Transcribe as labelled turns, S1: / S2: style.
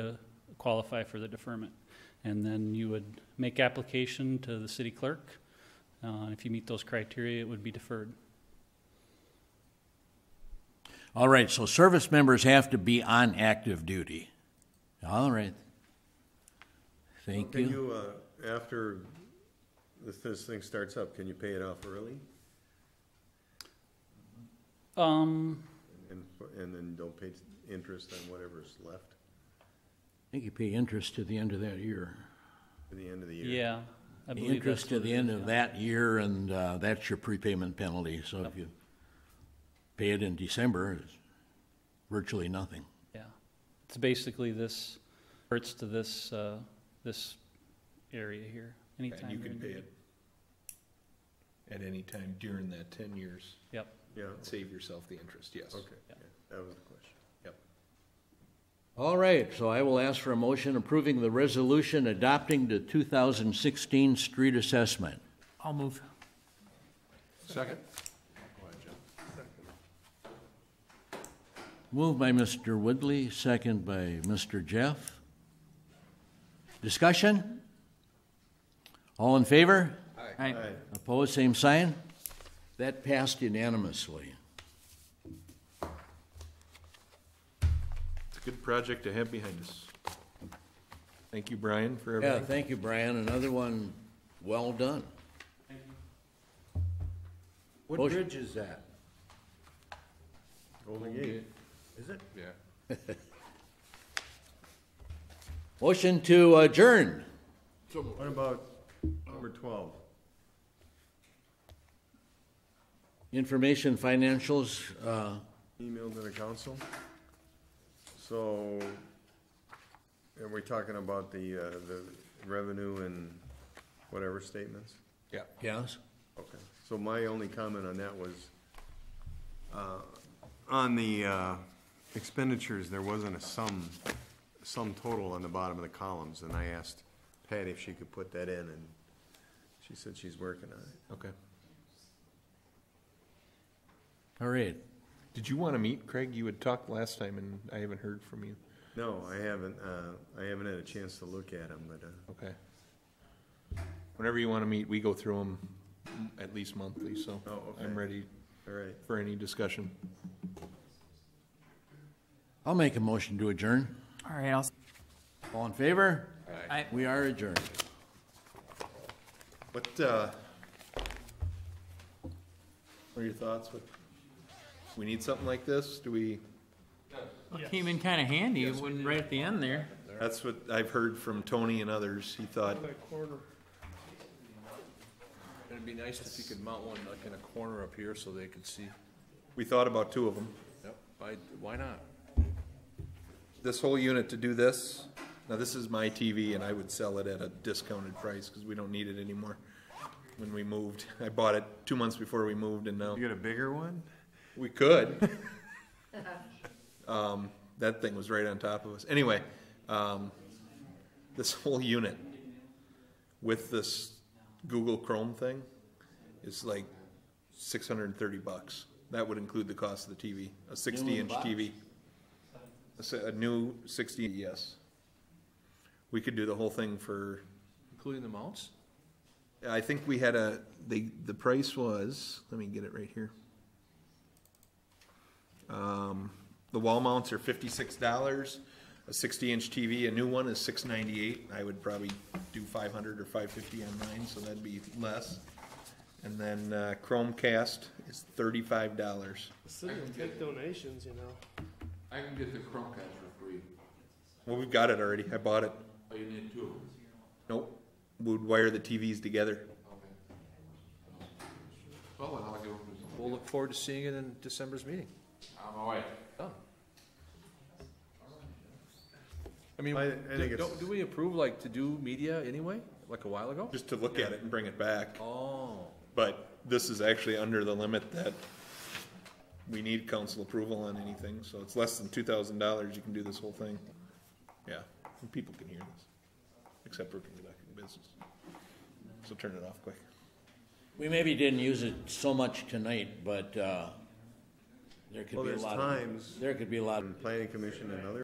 S1: qualify for the deferment. And then you would make application to the city clerk. Uh, If you meet those criteria, it would be deferred.
S2: All right, so service members have to be on active duty. All right. Thank
S3: Can
S2: you.
S3: you, uh, after this, this thing starts up, can you pay it off early?
S1: Um,
S3: And, and then don't pay interest on whatever's left
S2: I think you pay interest to the end of that year.
S3: at the end of the year?
S1: yeah, I believe
S2: Interest
S1: that's
S2: to
S1: what
S2: the
S1: it
S2: end
S1: is,
S2: of
S1: yeah.
S2: that year, and uh, that's your prepayment penalty. So if you pay it in December, it's virtually nothing.
S1: Yeah. It's basically this, hurts to this, uh, this area here, anytime.
S4: And you
S1: during
S4: can
S1: the
S4: pay
S1: year.
S4: it at any time during that ten years.
S1: Yep.
S3: Yeah,
S4: Save yourself the interest, yes.
S3: okay, yeah, that was the question.
S4: Yep.
S2: All right, so I will ask for a motion approving the resolution adopting the 2016 street assessment.
S1: I'll move.
S4: Second?
S2: Moved by Mr. Woodley, second by Mr. Jeff. Discussion? All in favor?
S3: All right,
S2: Opposed, same sign? That passed unanimously.
S4: It's a good project to have behind us. Thank you, Brian, for
S2: Yeah,
S4: everything.
S2: thank you, Brian. Another one, well done.
S5: What
S2: Motion.
S5: bridge is that?
S3: Golden Gate,
S5: Is it?
S4: Yeah.
S2: Motion to adjourn.
S3: what about number twelve?
S2: Information financials, uh,
S3: Emailed to the council? So, are we talking about the, uh, the revenue and whatever statements?
S4: Yeah.
S2: yes?
S3: Okay, so my only comment on that was, uh, on the uh, expenditures, there wasn't a sum, sum total on the bottom of the columns, and I asked Patty if she could put that in, and she said she's working on it.
S4: Okay.
S2: All right.
S4: Did you want to meet, Craig? You had talked last time and I haven't heard from you.
S3: No, I haven't, uh, I haven't had a chance to look at them, but, uh,
S4: Okay. Whenever you want to meet, we go through them at least monthly, so
S3: Oh, okay.
S4: I'm ready
S3: all right.
S4: for any discussion.
S2: I'll make a motion to adjourn.
S6: All right, I'll
S2: All in favor?
S6: Aye.
S2: We are adjourned.
S3: What, uh,
S4: What are your thoughts? What- We need something like this? Do we?
S6: It came in kind of handy when right at the end there.
S4: That's what I've heard from Tony and others. He thought.
S5: It'd be nice if you could mount one like in a corner up here so they could see.
S4: We thought about two of them.
S5: Yep. I, why not?
S4: This whole unit to do this, now this is my TV and I would sell it at a discounted price because we don't need it anymore. When we moved, I bought it two months before we moved and now
S3: you got a bigger one?
S4: we could. Um, that thing was right on top of us. Anyway, um, this whole unit with this Google Chrome thing is like six hundred and thirty bucks. That would include the cost of the TV, a sixty-inch TV. A s- A new sixty, yes. We could do the whole thing for,
S5: Including the mounts?
S4: I think we had a, the, the price was, let me get it right here. Um, the wall mounts are fifty-six dollars, a sixty-inch TV, a new one is six ninety-eight, I would probably do five hundred or five fifty on mine, so that'd be less. And then uh, Chromecast is thirty-five dollars.
S7: City will take donations, you know.
S8: I can get the Chromecast for free.
S4: Well, we've got it already, I bought it,
S8: Oh, you need two.
S4: nope, we'd wire the TVs together.
S8: Well, then I'll give them to
S5: We'll look forward to seeing it in December's meeting.
S8: I'm all right.
S5: Done. I mean,
S3: I- I think
S5: do,
S3: it's-
S5: don't- do we approve like to do media anyway, like a while ago?
S4: Just to look at it and bring it back.
S5: Oh,
S4: But this is actually under the limit that we need council approval on anything, so it's less than two thousand dollars, you can do this whole thing. Yeah, and people can hear this, except for people back in business. So turn it off quick.
S2: We maybe didn't use it so much tonight, but uh, there could
S3: Well,
S2: be a
S3: there's
S2: lot. of-
S3: times-
S2: There could be a lot. of-
S3: Planning Commission and other